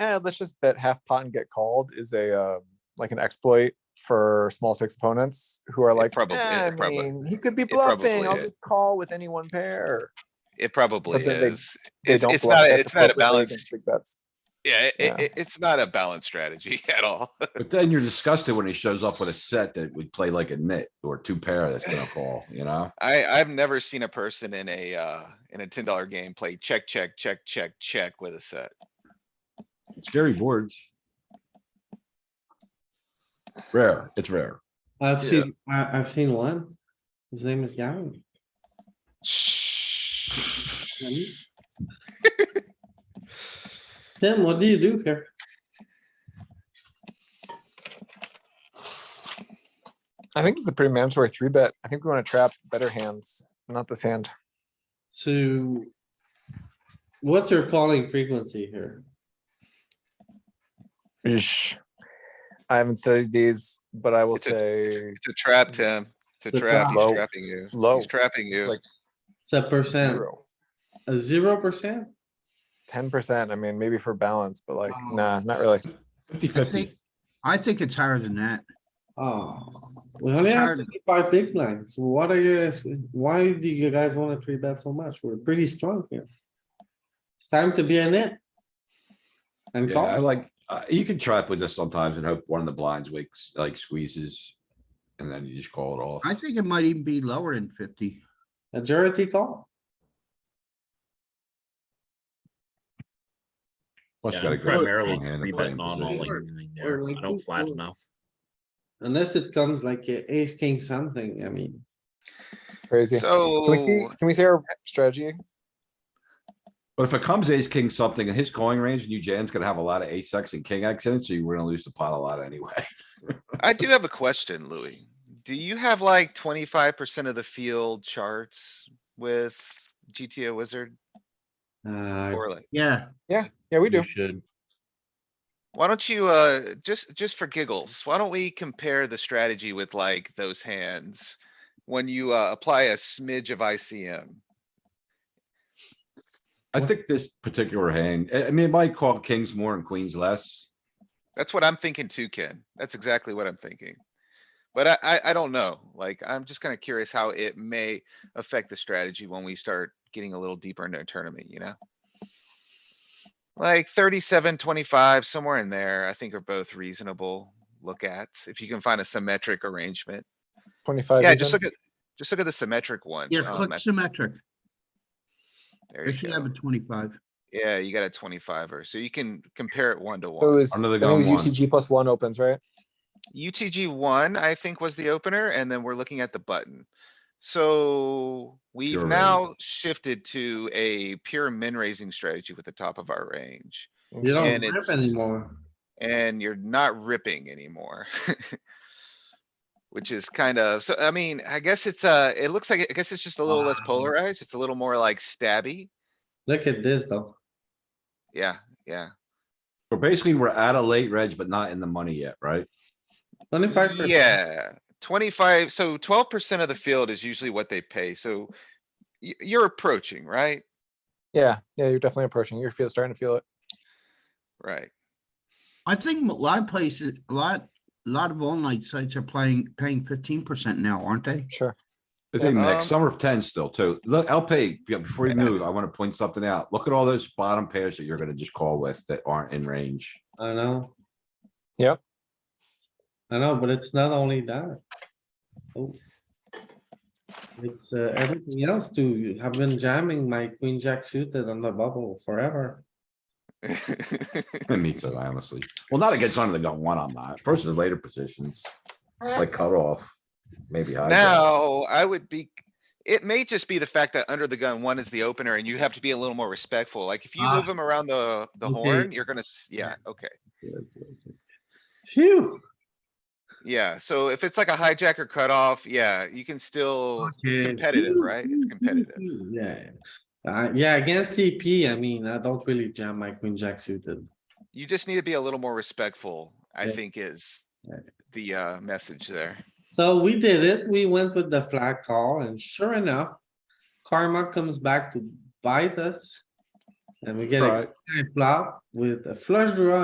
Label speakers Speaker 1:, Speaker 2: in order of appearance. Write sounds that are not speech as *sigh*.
Speaker 1: eh, let's just bet half pot and get called is a um like an exploit for small six opponents who are like,
Speaker 2: probably-
Speaker 1: "Eh,
Speaker 2: it
Speaker 1: I
Speaker 2: probab-
Speaker 1: mean, he could be
Speaker 2: probably
Speaker 1: bluffing. I'll
Speaker 2: is.
Speaker 1: just call with any one pair.
Speaker 2: It probably
Speaker 1: then they-
Speaker 2: is.
Speaker 1: They
Speaker 2: It's,
Speaker 1: don't
Speaker 2: it's
Speaker 1: bluff.
Speaker 2: not,
Speaker 1: That's
Speaker 2: it's not a
Speaker 1: appropriately
Speaker 2: balanced,
Speaker 1: against big bets.
Speaker 2: yeah, it,
Speaker 1: Yeah.
Speaker 2: it, it- it's not a balanced strategy *laughs* at all.
Speaker 3: But then you're disgusted when he shows up with a set that would play like a nit or two pair that's gonna call, you know?
Speaker 2: I, I've never seen a person in a, uh, in a ten dollar game play check, check, check, check, check with a set.
Speaker 3: Scary boards. Rare, it's rare.
Speaker 4: I've
Speaker 2: Yeah.
Speaker 4: seen, I, I've seen one. His name
Speaker 3: *laughs*
Speaker 4: is Gavin. Tim, what do you do here?
Speaker 1: I think it's a pretty mandatory three bet. I think we want to trap better hands, not this hand.
Speaker 4: So. What's your calling frequency here?
Speaker 1: Eesh. I haven't studied these, but I will
Speaker 2: It's a-
Speaker 1: say
Speaker 2: It's a trap, Tim. It's
Speaker 4: It's
Speaker 2: a
Speaker 4: a
Speaker 2: trap.
Speaker 1: trap.
Speaker 2: He's trapping you.
Speaker 1: It's low.
Speaker 2: He's trapping
Speaker 1: it's
Speaker 2: you.
Speaker 1: like
Speaker 4: It's a percent, a zero percent?
Speaker 1: ten percent. I mean, maybe for balance, but like,
Speaker 4: Wow.
Speaker 1: nah, not really.
Speaker 3: Fifty
Speaker 5: think- I think it's higher than that.
Speaker 4: Oh, we only have
Speaker 5: Tired.
Speaker 4: five big blinds. What are you, guys- why do you guys wanna three bet so much? We're pretty strong here. It's time to be in it. And
Speaker 3: Yeah, I
Speaker 4: call,
Speaker 3: like, uh, you can trap with this sometimes and hope one of the blinds wakes, like squeezes. And then you just call it off.
Speaker 5: I think it might even be lower than fifty.
Speaker 4: majority call.
Speaker 3: Plus, you
Speaker 6: Yeah,
Speaker 3: got a
Speaker 6: I'm
Speaker 3: good
Speaker 6: primarily
Speaker 3: hand and
Speaker 6: three
Speaker 3: playing
Speaker 6: bet non all
Speaker 3: position.
Speaker 6: anything there.
Speaker 4: Or like
Speaker 6: I don't
Speaker 4: two
Speaker 6: flat
Speaker 4: fours.
Speaker 6: enough.
Speaker 4: Unless it comes like a ace, king, something, I mean,
Speaker 1: Crazy.
Speaker 2: So.
Speaker 1: Can we see, can we see our strategy?
Speaker 3: But if it comes ace, king, something in his calling range, and you jam's gonna have a lot of ace X and king X in it, so you were gonna lose the pot a lot anyway.
Speaker 2: I do have a question, Louis. Do you have like twenty-five percent of the field charts with GTO Wizard
Speaker 4: uh,
Speaker 2: or like?
Speaker 5: Yeah,
Speaker 1: Yeah, we
Speaker 6: You
Speaker 1: do.
Speaker 6: should.
Speaker 2: Why don't you, uh, just, just for giggles, why don't we compare the strategy with like those hands? When you, uh, apply a smidge of ICM,
Speaker 3: I think this particular hand, I, I mean, it might call kings more and queens less.
Speaker 2: that's what I'm thinking too, Ken. That's exactly what I'm thinking. But I, I, I don't know, like, I'm just kinda curious how it may affect the strategy when we start getting a little deeper into a tournament, you know? Like thirty-seven, twenty-five, somewhere in there, I think are both reasonable look at, if you can find a symmetric arrangement.
Speaker 1: Twenty-five.
Speaker 2: Yeah, just
Speaker 1: even.
Speaker 2: look at, just look at the symmetric one.
Speaker 5: yeah,
Speaker 2: um,
Speaker 5: click
Speaker 2: at-
Speaker 5: symmetric.
Speaker 2: there
Speaker 5: They
Speaker 2: you
Speaker 5: should
Speaker 2: go.
Speaker 5: have a twenty-five.
Speaker 2: Yeah, you got a twenty-five or, so you can compare it one to
Speaker 1: So It
Speaker 2: one.
Speaker 1: was, I
Speaker 3: Under the
Speaker 1: think it was
Speaker 3: gun one.
Speaker 1: UTG plus one opens, right?
Speaker 2: UTG one, I think, was the opener, and then we're looking at the button. So we've
Speaker 3: Pure raise.
Speaker 2: now shifted to a pure min raising strategy with the top of our range.
Speaker 4: you don't
Speaker 2: And
Speaker 4: rip
Speaker 2: it's-
Speaker 4: anymore.
Speaker 2: And you're not ripping anymore. *laughs* Which is kind of, so I mean, I guess it's uh, it looks like, I guess it's just a little less
Speaker 4: Wow.
Speaker 2: polarized. It's a little more like stabby.
Speaker 4: Look at this though.
Speaker 2: Yeah, yeah.
Speaker 3: But basically, we're at a late reg, but not in the money yet, right?
Speaker 4: Twenty-five percent.
Speaker 2: Yeah, twenty-five, so twelve percent of the field is usually what they pay, so y- you're approaching, right?
Speaker 1: Yeah, yeah, you're definitely approaching. You're feel, starting to feel it.
Speaker 2: Right,
Speaker 5: I think a lot of places, a lot, a lot of online sites are playing, paying fifteen percent now, aren't they?
Speaker 1: Sure.
Speaker 3: I think
Speaker 2: Um,
Speaker 3: next, some are ten still too. Look, I'll pay, yeah, before you move, I wanna point something out. Look at all those bottom pairs that you're gonna just call with that aren't
Speaker 2: *laughs*
Speaker 3: in range.
Speaker 4: I know.
Speaker 1: Yep.
Speaker 4: I know, but it's not only that. Oh. It's uh, everything else too. I've been jamming my queen jack suited on the bubble forever.
Speaker 2: *laughs*
Speaker 3: Me too, honestly. Well, not against under the gun one, I'm not. Versus later positions, like cutoff, maybe high. jack.
Speaker 2: Uh, Now, I would be, it may just be the fact that under the gun one is the opener and you have to be a little more respectful. Like if you
Speaker 4: Ah,
Speaker 2: move him around the, the
Speaker 4: okay.
Speaker 2: horn, you're gonna, s- yeah, okay.
Speaker 4: Phew.
Speaker 2: Yeah, so if it's like a hijacker cutoff, yeah, you can still,
Speaker 4: Okay.
Speaker 2: it's competitive, right? It's competitive.
Speaker 4: Yeah. Uh, yeah, against CP, I mean, I don't really jam my queen jack suited.
Speaker 2: You just need to be a little more respectful, I
Speaker 4: Yeah.
Speaker 2: think is
Speaker 4: Yeah.
Speaker 2: the, uh, message there.
Speaker 4: So we did it. We went with the flag call and sure enough, karma comes back to bite us. And we get a
Speaker 3: Right.
Speaker 4: guy flop with a flush draw